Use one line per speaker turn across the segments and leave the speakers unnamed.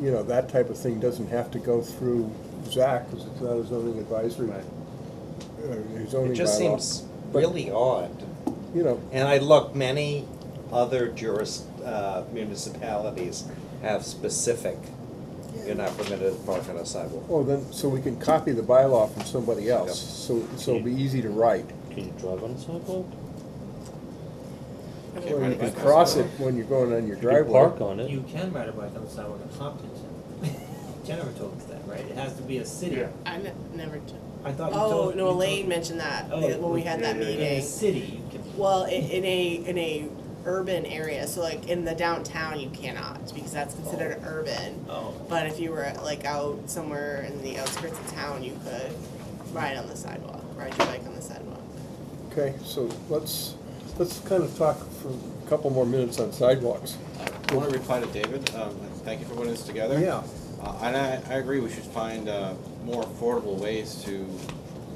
you know, that type of thing doesn't have to go through Zach, because it's not a zoning advisory,
Right.
uh,
It
zoning
just
bylaw.
seems
But-
really odd.
You know,
And I look, many other juris, uh, municipalities have specific, you're not permitted to park on a sidewalk.
oh, then, so we can copy the bylaw from somebody else, so, so it'll be easy to write.
Can you drive on a sidewalk?
Can't
Or
ride
you
a
can
bike on
cross it
sidewalk.
when you're going on your
Can you park
driveway.
on it?
You can ride a bike on the sidewalk in Hopkinton. Jennifer told us that, right? It has to be a city.
Yeah.
I ne- never took.
I thought you told.
Oh,
you
no,
told-
Elaine mentioned that
Oh,
when we had that
yeah, yeah,
In a
meeting.
city, you can.
Well, in, in a, in a urban area, so like in the downtown, you cannot, because that's considered urban.
Oh.
But if you were like out somewhere in the outskirts of town, you could ride on the sidewalk, ride your bike on the sidewalk.
Okay, so let's, let's kind of talk for a couple more minutes on sidewalks.
I want to reply to David. Um, thank you for putting this together.
Yeah.
Uh, and I, I agree, we should find uh, more affordable ways to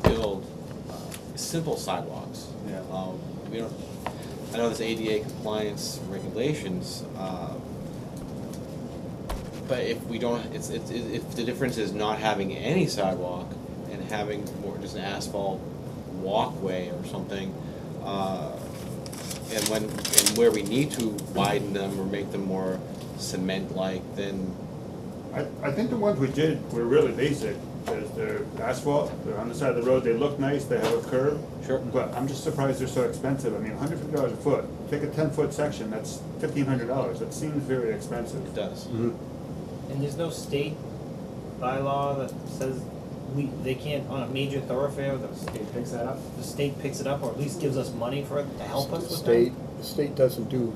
build uh, simple sidewalks.
Yeah.
Um, we don't, I know there's ADA compliance regulations, uh, but if we don't, it's, it's, it- if the difference is not having any sidewalk and having more just an asphalt walkway or something, uh, and when, and where we need to widen them or make them more cement-like, then
I, I think the ones we did were really basic, there's the asphalt, they're on the side of the road, they look nice, they have a curve.
Sure.
But I'm just surprised they're so expensive, I mean, hundred fifty dollars a foot, take a ten-foot section, that's fifteen hundred dollars, that seems very expensive.
it does.
And there's no state bylaw that says we, they can't, on a major thoroughfare, the state picks that up. The state picks it up or at least gives us money for it to help us with
State,
that. Oh,
state doesn't do,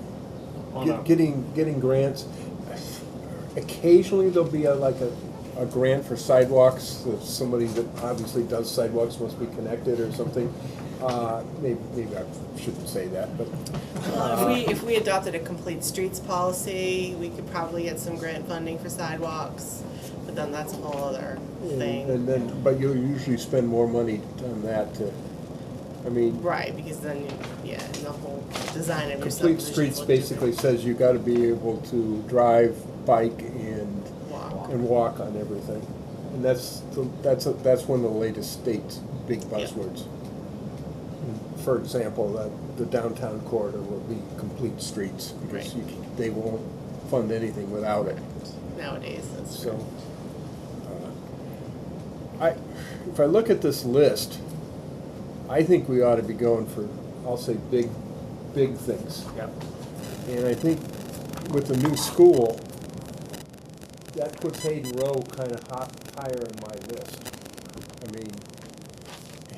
On
get-
a-
getting, getting grants. Occasionally, there'll be a, like a, a grant for sidewalks, if somebody that obviously does sidewalks must be connected or something. Uh, maybe, maybe I shouldn't say that, but, Oh. uh,
Well, if we, if we adopted a complete streets policy, we could probably get some grant funding for sidewalks, but then that's a whole other
Hmm,
and
thing.
and then, but you'll usually spend more money on that to, I mean,
Right, because then, yeah, and the whole design of your
complete
subdivisions
streets
look different.
basically says you gotta be able to drive, bike, and
Walk.
and walk on everything. And that's, the- that's, a- that's one of the latest state's big buzzwords. For example, that the downtown corridor will be complete streets, because
Right.
you, they won't fund anything without it,
nowadays, that's
so. uh, I, if I look at this list, I think we ought to be going for, I'll say, big, big things.
Yeah.
And I think with the new school, that puts Hayden Row kind of hot, higher in my list. I mean,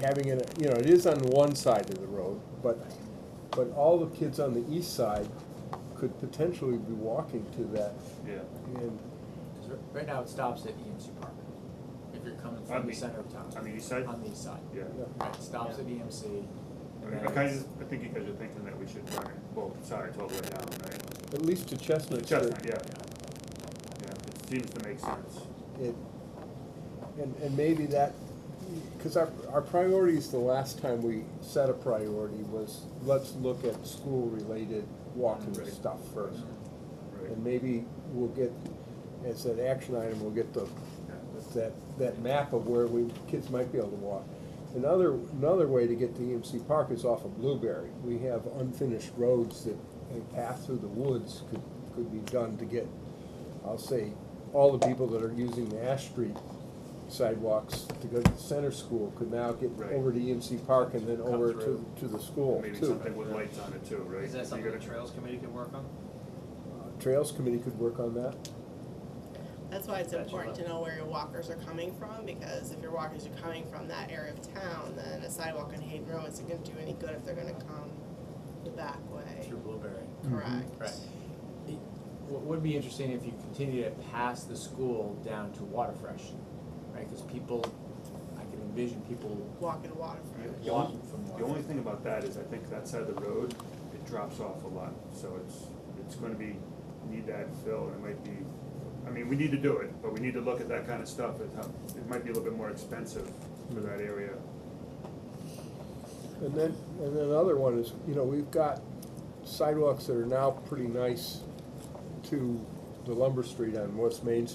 having it, you know, it is on one side of the road, but, but all the kids on the east side could potentially be walking to that.
Yeah.
And,
'Cause r- Right now, it stops at E EMC Park, if you're coming
On
from the
the-
center of town.
on the east side?
On the east side.
Yeah,
Right, it stops at E EMC.
I mean, I kinda, just- I think you guys are thinking that we should run it both sides all the way down, right?
at least to Chestnut Street.
Chestnut, yeah, yeah, it seems to make sense.
it, and, and maybe that, because our, our priorities the last time we set a priority was, let's look at school-related walking
Right.
stuff first.
Right.
And maybe we'll get, as an action item, we'll get the, that, that map of where we, kids might be able to walk. Another, another way to get to EMC Park is off of Blueberry. We have unfinished roads that a path through the woods could, could be done to get, I'll say, all the people that are using the Ash Street sidewalks to go to the center school could now get
Right.
over to EMC Park and then
Come
over to,
through.
to the school
Maybe
too.
something with lights on it too, right?
Is that
You
something the
gotta-
Trails Committee could work on?
Trails Committee could work on that.
That's why it's
Gotcha.
important to know where your walkers are coming from, because if your walkers are coming from that area of town, then a sidewalk on Hayden Row isn't gonna do any good if they're gonna come the back way,
Through Blueberry.
correct?
Mm-hmm. Right. It- What would be interesting if you continue to pass the school down to Waterfresh, right? Because people, I can envision people
Walking to Waterfront.
The only-
walking from
The only
Waterfresh.
thing about that is I think that side of the road, it drops off a lot, so it's, it's gonna be, need that fill, and it might be, I mean, we need to do it, but we need to look at that kind of stuff, and how, it might be a little bit more expensive for that area.
And then, and then another one is, you know, we've got sidewalks that are now pretty nice to the lumber street on West Main Street.